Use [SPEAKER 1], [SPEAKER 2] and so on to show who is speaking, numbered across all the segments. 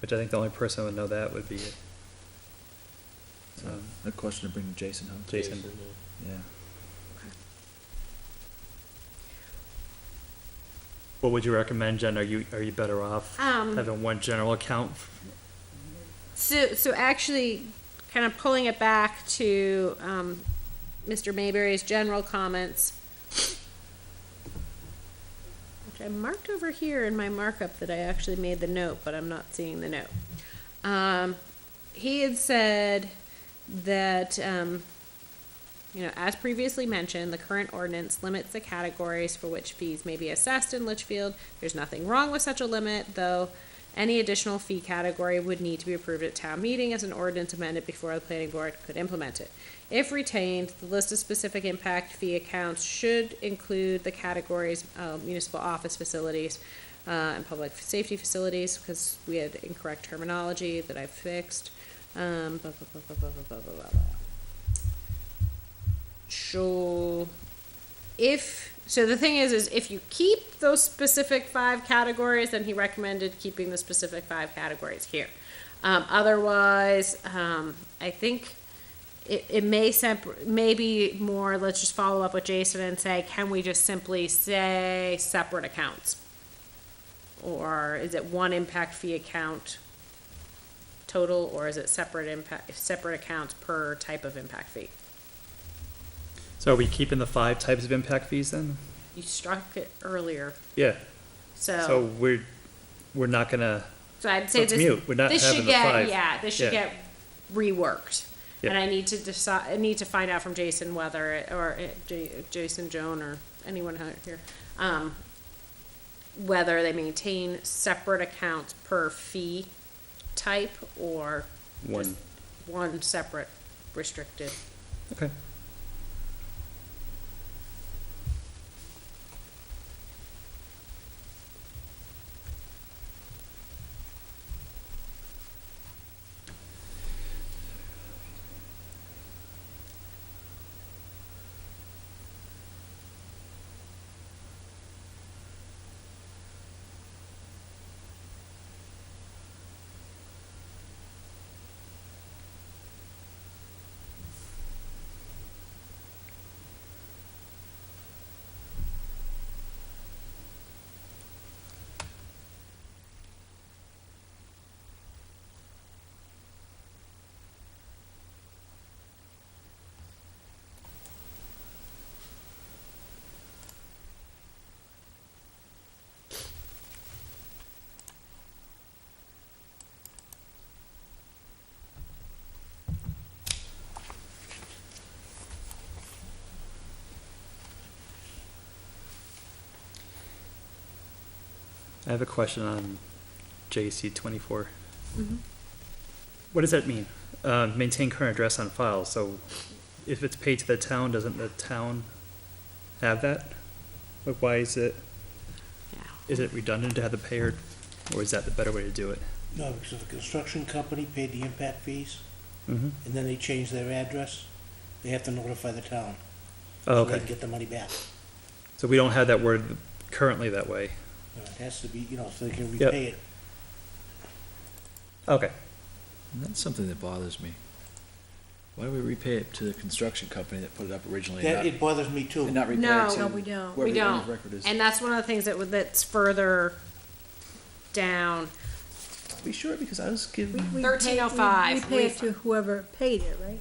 [SPEAKER 1] Which I think the only person that would know that would be um,
[SPEAKER 2] A question to bring to Jason, huh?
[SPEAKER 1] Jason.
[SPEAKER 2] Yeah.
[SPEAKER 1] What would you recommend, Jen? Are you, are you better off
[SPEAKER 3] Um,
[SPEAKER 1] having one general account?
[SPEAKER 3] So, so actually, kind of pulling it back to, um, Mr. Mayberry's general comments, which I marked over here in my markup that I actually made the note, but I'm not seeing the note. Um, he had said that, um, you know, as previously mentioned, the current ordinance limits the categories for which fees may be assessed in Litchfield. There's nothing wrong with such a limit, though any additional fee category would need to be approved at town meeting as an ordinance amended before the planning board could implement it. If retained, the list of specific impact fee accounts should include the categories, uh, municipal office facilities, uh, and public safety facilities, because we had incorrect terminology that I fixed. Um, blah, blah, blah, blah, blah, blah, blah, blah, blah sure if so the thing is is if you keep those specific five categories then he recommended keeping the specific five categories here um, otherwise um, i think it, it may separ- maybe more let's just follow up with jason and say can we just simply say separate accounts or is it one impact fee account total or is it separate impact separate accounts per type of impact fee
[SPEAKER 1] So are we keeping the five types of impact fees then?
[SPEAKER 3] you struck it earlier
[SPEAKER 1] Yeah, so
[SPEAKER 3] So,
[SPEAKER 1] we're, we're not gonna,
[SPEAKER 3] so I'd
[SPEAKER 1] so
[SPEAKER 3] say
[SPEAKER 1] it's
[SPEAKER 3] this,
[SPEAKER 1] mute. We're not
[SPEAKER 3] this
[SPEAKER 1] having
[SPEAKER 3] should
[SPEAKER 1] the
[SPEAKER 3] get,
[SPEAKER 1] five.
[SPEAKER 3] yeah, this should
[SPEAKER 1] Yeah.
[SPEAKER 3] get reworked.
[SPEAKER 1] Yeah.
[SPEAKER 3] And I need to decide, I need to find out from Jason whether, it- or it- J- Jason, Joan, or anyone out here, um, whether they maintain separate accounts per fee type or
[SPEAKER 1] One.
[SPEAKER 3] just one separate restricted.
[SPEAKER 1] okay. I have a question on JC twenty-four. What does that mean? Uh, maintain current address on file, so if it's paid to the town, doesn't the town have that? Like, why is it,
[SPEAKER 3] Yeah.
[SPEAKER 1] is it redundant to have the payer, or is that the better way to do it?
[SPEAKER 4] No, because the construction company paid the impact fees,
[SPEAKER 1] Mm-hmm.
[SPEAKER 4] and then they changed their address, they have to notify the town.
[SPEAKER 1] Oh,
[SPEAKER 4] So they
[SPEAKER 1] okay,
[SPEAKER 4] can get the money back.
[SPEAKER 1] so we don't have that word currently that way.
[SPEAKER 4] You know, It has to be, you know, so they can
[SPEAKER 1] Yep.
[SPEAKER 4] repay it.
[SPEAKER 1] Okay,
[SPEAKER 2] And that's something that bothers me. Why do we repay it to the construction company that put it up originally and
[SPEAKER 4] That,
[SPEAKER 2] not,
[SPEAKER 4] it bothers me too.
[SPEAKER 2] and not repay
[SPEAKER 3] No.
[SPEAKER 2] it to
[SPEAKER 3] No,
[SPEAKER 5] we don't.
[SPEAKER 2] whoever
[SPEAKER 3] We
[SPEAKER 2] the owner of
[SPEAKER 3] don't.
[SPEAKER 2] record is?
[SPEAKER 3] And that's one of the things that, would- that's further down.
[SPEAKER 2] Are we sure? Because I was
[SPEAKER 5] We-
[SPEAKER 2] given,
[SPEAKER 5] we pay-
[SPEAKER 3] 1305,
[SPEAKER 5] We pay it to
[SPEAKER 3] refund.
[SPEAKER 5] whoever paid it, right?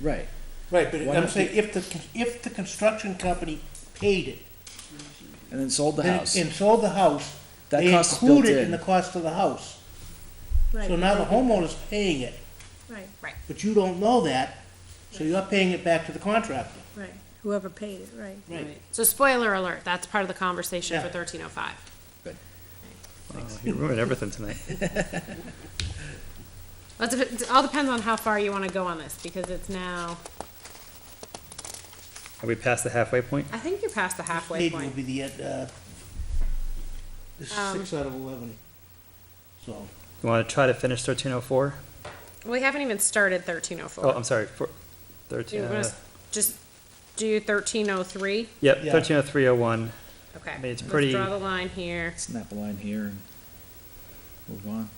[SPEAKER 2] right.
[SPEAKER 4] Right, but
[SPEAKER 2] Why
[SPEAKER 4] I'm
[SPEAKER 2] not
[SPEAKER 4] saying, if the, if the construction company paid it,
[SPEAKER 2] And then sold the
[SPEAKER 4] then-
[SPEAKER 2] house.
[SPEAKER 4] and sold the house,
[SPEAKER 2] That
[SPEAKER 4] they
[SPEAKER 2] cost is built
[SPEAKER 4] include it
[SPEAKER 2] in.
[SPEAKER 4] in the cost of the house.
[SPEAKER 5] Right.
[SPEAKER 4] So now the homeowner's paying it,
[SPEAKER 5] Right,
[SPEAKER 3] Right.
[SPEAKER 4] but you don't know that, so you're paying it back to the contractor.
[SPEAKER 5] right, whoever paid it, right.
[SPEAKER 4] Right.
[SPEAKER 3] So spoiler alert, that's part of the conversation for
[SPEAKER 4] Yeah.
[SPEAKER 3] thirteen oh five.
[SPEAKER 1] wow, Uh, you ruined everything tonight.
[SPEAKER 3] Well, it's- it all depends on how far you want to go on this, because it's now,
[SPEAKER 1] Are we past the halfway point?
[SPEAKER 3] I think you're past the halfway
[SPEAKER 4] Maybe will
[SPEAKER 3] point.
[SPEAKER 4] be the, uh, this is
[SPEAKER 3] Um,
[SPEAKER 4] six out of eleven. So,
[SPEAKER 1] You want to try to finish thirteen oh four?
[SPEAKER 3] We haven't even started thirteen oh
[SPEAKER 1] Oh,
[SPEAKER 3] four.
[SPEAKER 1] I'm sorry, four, thirteen, uh,
[SPEAKER 3] Just do thirteen oh three,
[SPEAKER 1] yep,
[SPEAKER 4] Yeah.
[SPEAKER 1] thirteen oh three oh one.
[SPEAKER 3] okay.
[SPEAKER 1] mean, it's
[SPEAKER 3] Let's
[SPEAKER 1] pretty-
[SPEAKER 3] Draw the line here.
[SPEAKER 2] Snap a line here and move on.